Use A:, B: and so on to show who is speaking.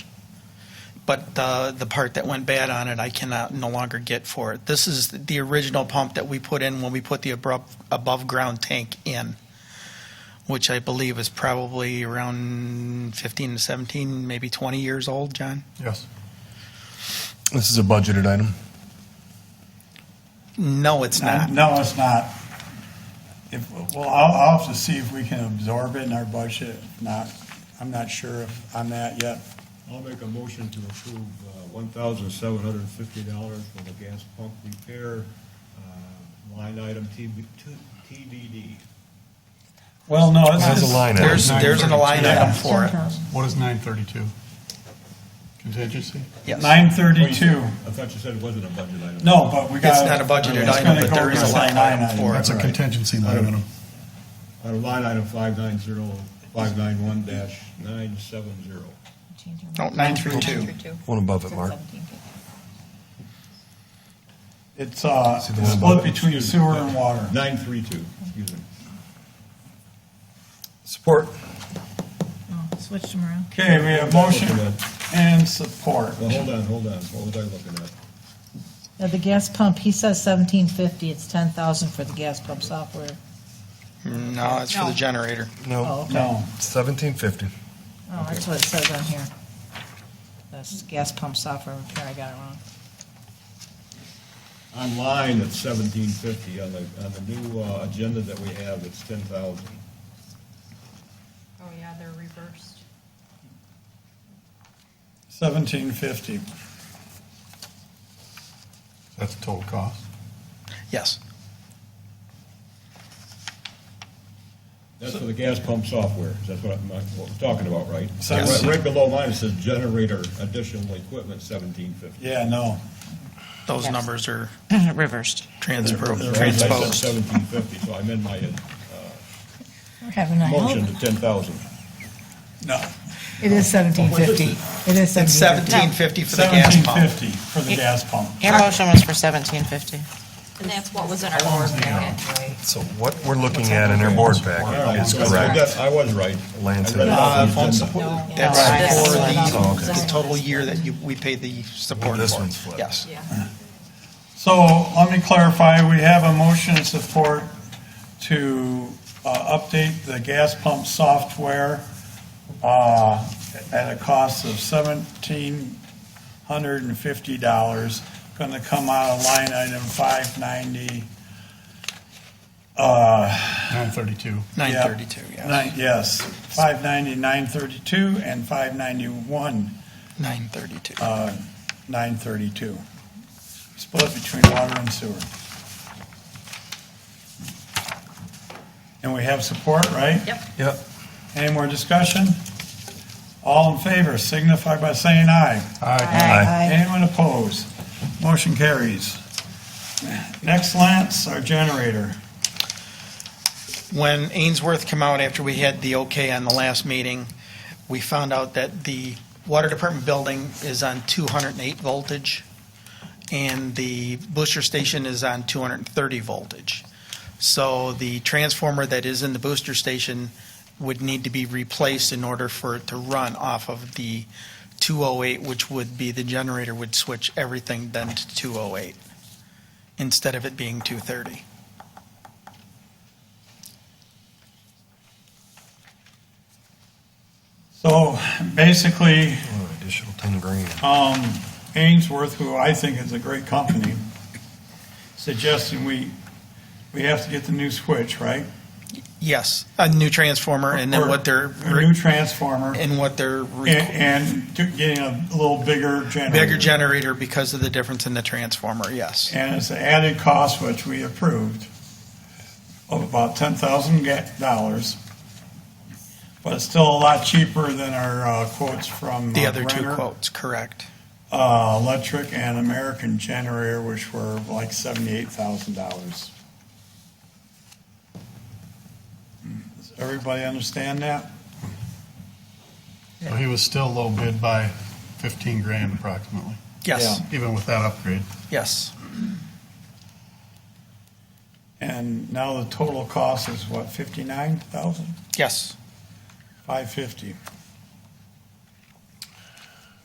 A: but the, the part that went bad on it, I cannot no longer get for it. This is the original pump that we put in when we put the abrupt, above-ground tank in, which I believe is probably around 15 to 17, maybe 20 years old, John?
B: Yes. This is a budgeted item.
A: No, it's not.
C: No, it's not. If, well, I'll, I'll have to see if we can absorb it in our budget, If not, I'm not sure if, on that yet.
D: I'll make a motion to approve uh, one thousand seven hundred and fifty dollars for the gas pump repair uh, line item TB to- TDD.
C: Well, no,
B: There's a line item.
A: There's, there's an line item for it.
E: What is nine thirty-two? Contingency?
A: Yes.
C: Nine thirty-two.
D: I thought you said it wasn't a budget item.
C: No, but we got.
A: It's not a budgeted
C: it's
A: item,
C: gonna
A: but
C: go
A: there is a
C: against
A: line
C: that
A: item for it.
E: That's a
D: Right.
E: contingency line item.
D: Out of Uh, line item five nine zero, five nine one dash nine seven zero.
A: No, nine through two.
B: One above it, Mark.
C: It's, uh,
B: See the one
C: split
B: above it?
C: between sewer and water.
D: Nine three two, excuse me.
B: Support.
F: Switched them around.
C: Okay, we have motion and support.
D: Well, hold on, hold on, what was I looking at?
F: Now, the gas pump, he says seventeen fifty, it's ten thousand for the gas pump software.
A: No, it's for the
G: No.
A: generator.
F: Oh,
B: No,
F: okay.
C: No,
B: seventeen fifty.
F: Oh, that's what it says on here. That's gas pump software repair, I got it wrong.
D: Online, it's seventeen fifty, on the, on the new uh, agenda that we have, it's ten thousand.
G: Oh, yeah, they're reversed.
C: seventeen fifty.
E: That's the total cost.
A: Yes.
D: That's for the gas pump software, that's what I'm, what we're talking about, right?
C: So-
D: Right right below mine, it says generator additional equipment seventeen fifty.
C: Yeah, no.
A: Those numbers are
H: Reversed.
A: transpo-
D: I
A: transposed.
D: said seventeen fifty, so I amend my
F: We're having a
D: uh,
F: hell
D: motion
F: of
D: to ten thousand.
C: No.
F: a- It is seventeen fifty. It is
A: It's
F: seventeen
A: seventeen fifty
F: fifty.
A: for the gas
C: Seventeen
A: pump.
C: fifty for the gas pump.
H: Your motion was for seventeen fifty.
G: And that's what was in our board packet, right?
B: So what we're looking at in our board packet is correct.
D: I was right.
B: Lance
D: I read
B: and-
D: it
A: Uh,
D: off the
A: phone
D: agenda.
A: support,
G: No.
A: that's
H: No.
A: for
B: Oh,
A: the,
B: okay.
A: the total year that you, we pay the support
B: This
A: for.
B: one's flipped.
A: Yes.
G: Yeah.
C: So let me clarify, we have a motion and support to uh, update the gas pump software uh, at a cost of seventeen hundred and fifty dollars, going to come out of line item five ninety.
E: Nine thirty-two.
A: Nine thirty-two, yes.
C: Yes, five ninety, nine thirty-two, and five ninety-one,
A: Nine thirty-two.
C: nine thirty-two. Split between water and sewer. And we have support, right?
G: Yep.
B: Yep.
C: Any more discussion? All in favor signify by saying aye.
B: Aye.
C: Anyone opposed? Motion carries. Next, Lance, our generator.
A: When Ainsworth came out after we had the okay on the last meeting, we found out that the water department building is on two hundred and eight voltage, and the booster station is on two hundred and thirty voltage. So the transformer that is in the booster station would need to be replaced in order for it to run off of the two oh eight, which would be, the generator would switch everything then to two oh eight, instead of it being two thirty.
C: So basically,
B: Oh, Additional ten grand.
C: um, Ainsworth, who I think is a great company, suggesting we, we have to get the new switch, right?
A: Yes, a new transformer, and then
C: Or
A: what they're,
C: A new transformer and,
A: and what they're re-
C: and to- getting a little bigger generator.
A: bigger generator because of the difference in the transformer, yes.
C: And it's an added cost, which we approved, of about ten thousand dollars. But it's still a lot cheaper than our uh, quotes from.
A: The
C: uh,
A: other two
C: Brenner,
A: quotes, correct.
C: Uh, electric and American generator, which were like seventy-eight thousand dollars. Does everybody understand that?
E: So he was still low bid by fifteen grand approximately,
A: Yes,
E: even with that upgrade.
A: yes.
C: And now the total cost is what, fifty-nine thousand?
A: Yes.
C: Five fifty.